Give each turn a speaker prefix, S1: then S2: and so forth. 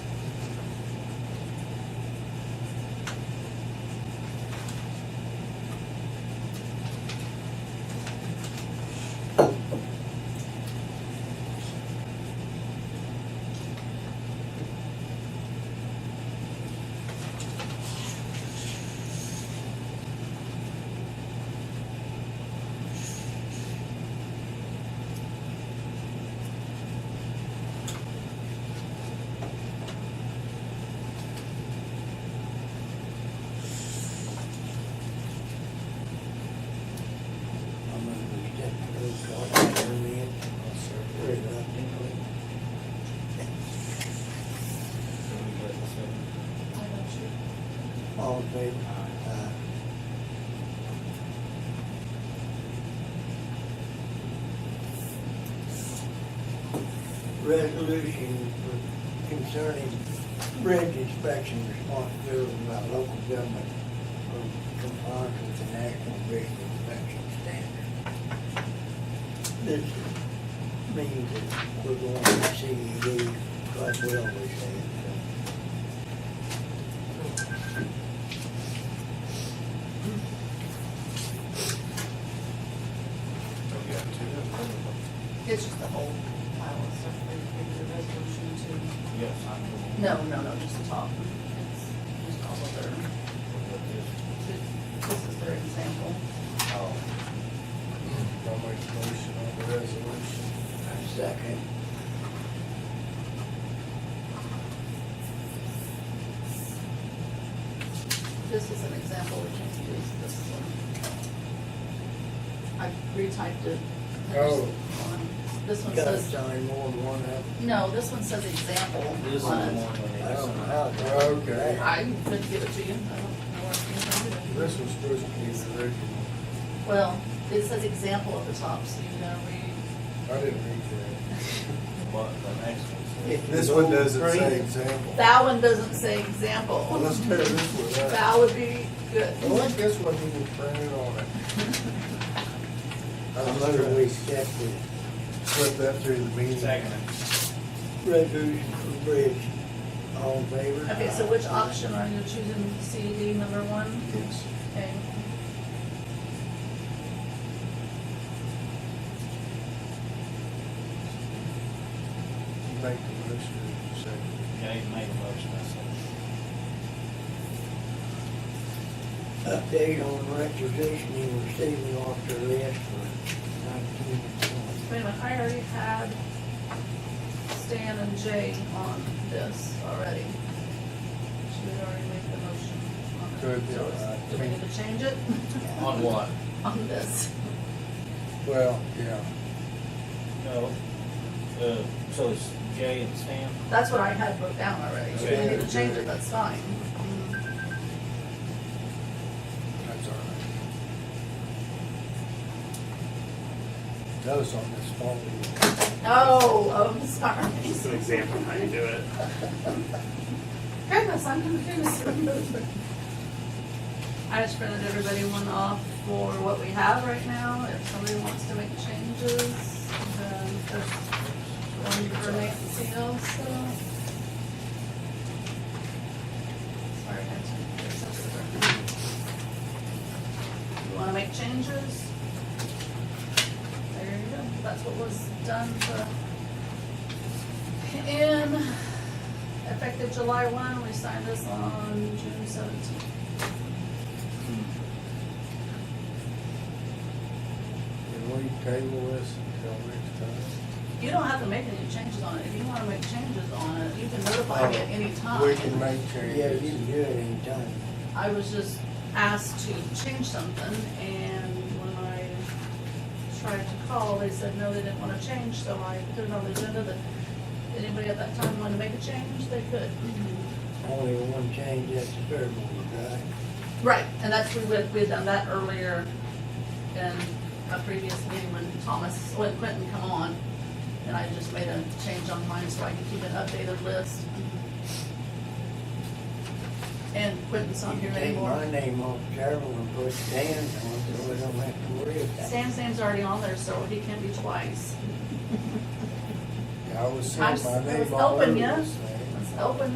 S1: All in favor? Uh, Aye. Resolution for- concerning bridge inspection responsibility by local government for compliance with the National Bridge Inspection Standard. This means that we're going to CED, like we always have. so.
S2: we got two.
S3: It's just the whole pile of stuff that we did the resolution
S2: Yes, I
S3: to. No, no, no, just the top. It's just all of their,
S2: know.
S3: this is their example.
S2: Oh. I'll make a motion on the resolution.
S1: Second.
S3: This is an example which is this one. I retyped it. There's
S1: Oh.
S3: one. This one
S1: Gotta
S3: says,
S1: sign more than one of them.
S3: no, this one says example on it.
S1: I
S4: Oh,
S1: don't know how, to- okay.
S3: I could give it to you. I don't know what you can do.
S2: This was supposed to be the original.
S3: Well, it says example at the top, so you gotta read.
S2: I didn't read that. What, the next
S1: If you
S2: one?
S4: This one
S1: go
S4: doesn't
S1: green,
S4: say example.
S3: That one doesn't say
S4: Well,
S3: example.
S4: let's tear this one out.
S3: That would be good.
S2: I like this one even printed on it.
S1: I'm gonna reset the
S4: Slip that through the meeting.
S1: resolution for bridge. All in favor?
S3: Okay, so which option are you choosing, C, D, number one?
S4: Yes.
S3: Okay.
S4: You Make the motion in a second.
S2: Yeah, you made a motion, I said.
S1: Update on requisition and receiving officer list for nineteen and
S3: Wait a minute, I already had Stan and Jay on this already. She had already made the motion on it.
S4: Good,
S3: So it's-
S4: uh,
S3: Do we need to change it
S2: On what?
S3: on this?
S4: Well, yeah.
S2: No, uh, so it's Jay and Stan?
S3: That's what I had wrote down already. So we need to change it, that's fine.
S4: That's all right. That was on this phone.
S3: Oh, I'm sorry.
S5: Just an example of how you do it.
S3: Goodness, I'm confused. I just printed everybody one off for what we have right now. If somebody wants to make changes, then there's one for Nancy also. Sorry, Nancy. You wanna make changes? There you go. That's what was done for and effective July one, we signed this on June seventeenth.
S4: Can we table this until next time?
S3: You don't have to make any changes on it. If you wanna make changes on it, you can notify me at any
S4: Oh, We can
S3: time.
S4: make
S1: twenty. Yeah, you
S4: changes.
S1: can do it anytime.
S3: I was just asked to change something and when I tried to call, they said, no, they didn't wanna change, so I put it on the agenda that anybody at that time wanted to make a change, they could.
S1: Only one change, that's the third one, right?
S3: Right, and that's, we had, we had done that earlier in a previous meeting when Thomas, when Quentin come on. And I just made a change on mine so I could keep an updated list. And Quentin's not
S1: You
S3: here
S1: can take my
S3: anymore.
S1: name off several and put Dan's on, so we don't have to worry about it.
S3: Sam's name's already on there, so he can be twice.
S4: I was
S3: I'm
S4: saying
S3: s-
S4: my
S3: I was
S4: name all
S3: open,
S4: over
S3: yeah.
S4: this thing.
S3: Let's open